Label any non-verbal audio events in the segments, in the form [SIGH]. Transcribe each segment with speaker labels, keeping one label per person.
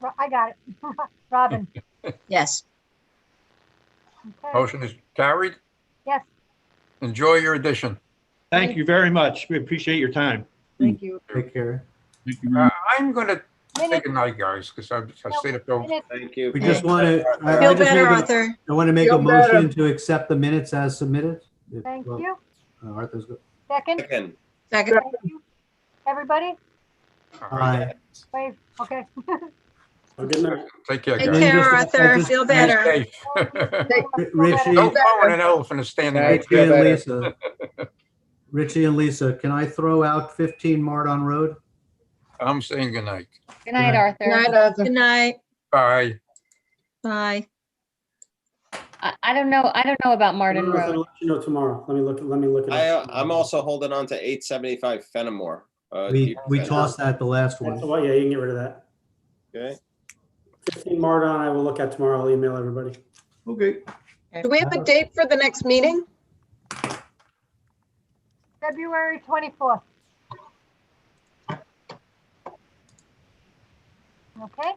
Speaker 1: Ro- I got it. [LAUGHS] Robin,
Speaker 2: Yes.
Speaker 1: okay,
Speaker 3: Motion is carried.
Speaker 1: yes,
Speaker 3: Enjoy your edition.
Speaker 4: Thank you very much. We appreciate your time.
Speaker 5: Thank you.
Speaker 6: Take care.
Speaker 7: Thank you very
Speaker 3: Uh,
Speaker 7: much.
Speaker 3: I'm gonna
Speaker 1: minute,
Speaker 3: take a night, guys, because I I stayed up till
Speaker 1: minute,
Speaker 8: Thank you.
Speaker 6: We just want to,
Speaker 2: Feel
Speaker 6: I just
Speaker 2: better,
Speaker 6: wanna-
Speaker 2: Arthur.
Speaker 6: I want to make a
Speaker 5: Feel better.
Speaker 6: motion to accept the minutes as submitted. If-
Speaker 1: thank
Speaker 6: well,
Speaker 1: you.
Speaker 6: uh, Arthur's, go-
Speaker 1: Second,
Speaker 8: Second.
Speaker 2: Second.
Speaker 1: thank you. Everybody,
Speaker 6: aye.
Speaker 1: wave, okay.
Speaker 9: Oh,
Speaker 3: Take care,
Speaker 2: Take
Speaker 3: guys.
Speaker 6: Then just-
Speaker 2: care,
Speaker 6: I
Speaker 2: Arthur.
Speaker 6: just-
Speaker 2: Feel
Speaker 6: Stay
Speaker 2: better.
Speaker 3: Stay
Speaker 1: [LAUGHS]
Speaker 3: [LAUGHS] safe.
Speaker 6: Richie-
Speaker 3: Don't phone an elephant is standing.
Speaker 8: Thank
Speaker 3: next
Speaker 6: Richie
Speaker 8: you.
Speaker 6: and
Speaker 8: Better.
Speaker 6: Lisa. [LAUGHS] Richie and Lisa, can I throw out 15 Mardon Road?
Speaker 3: I'm saying good night.
Speaker 5: Good night, Arthur.
Speaker 2: Good night. Good night.
Speaker 3: Bye.
Speaker 2: Bye.
Speaker 5: I, I don't know, I don't know about Martin
Speaker 9: Well, I'll
Speaker 5: Road.
Speaker 9: let You know tomorrow. Let me look, let me look. it
Speaker 8: I, uh,
Speaker 9: up.
Speaker 8: I'm also holding on to eight seventy-five Fenimore. Uh,
Speaker 6: We,
Speaker 8: keep
Speaker 6: we
Speaker 8: that.
Speaker 6: tossed that the last
Speaker 9: That's a
Speaker 6: one.
Speaker 9: lot. Yeah, you can get rid of that.
Speaker 8: Okay.
Speaker 9: Fifteen Mardon, I will look at tomorrow. I'll email everybody.
Speaker 6: Okay.
Speaker 2: Do we have a date for the next meeting?
Speaker 1: February 24th. Okay,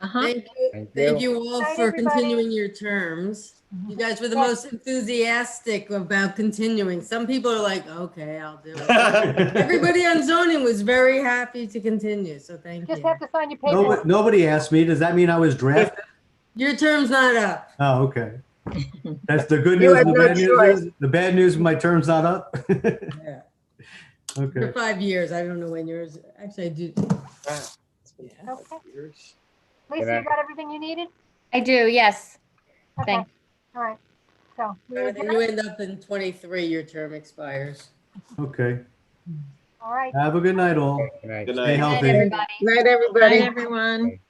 Speaker 2: Uh-huh.
Speaker 10: Thank you, thank you all
Speaker 1: Night,
Speaker 10: for
Speaker 1: everybody. Mm-hmm.
Speaker 10: continuing your terms. You guys were the most enthusiastic about continuing. Some people are like, okay, I'll do it. [LAUGHS] Everybody on zoning was very happy to continue, so thank
Speaker 1: just
Speaker 10: you.
Speaker 1: have to sign your paper.
Speaker 6: Nobody, nobody asked me. Does that mean I was drafted?
Speaker 10: Your term's not up.
Speaker 6: Oh,
Speaker 5: [LAUGHS]
Speaker 6: okay. That's the good
Speaker 5: You
Speaker 6: news.
Speaker 5: had
Speaker 6: and The
Speaker 5: no
Speaker 6: bad news is, the bad news, my term's not up. [LAUGHS]
Speaker 10: Yeah. For
Speaker 6: Okay.
Speaker 10: five years, I don't know when yours, actually, I do. Yeah.
Speaker 1: Okay. Lisa, you got everything you needed?
Speaker 5: I do, yes.
Speaker 1: Okay.
Speaker 5: Thank-
Speaker 1: All right, so. we
Speaker 10: Then
Speaker 1: adjourn?
Speaker 10: you end up in 23, your term expires.
Speaker 6: Okay.
Speaker 1: All right.
Speaker 6: Have a good night, all.
Speaker 8: Good
Speaker 6: Stay
Speaker 8: night.
Speaker 6: healthy.
Speaker 5: Everybody.
Speaker 2: Night,
Speaker 5: Night,
Speaker 2: everybody.
Speaker 5: everyone.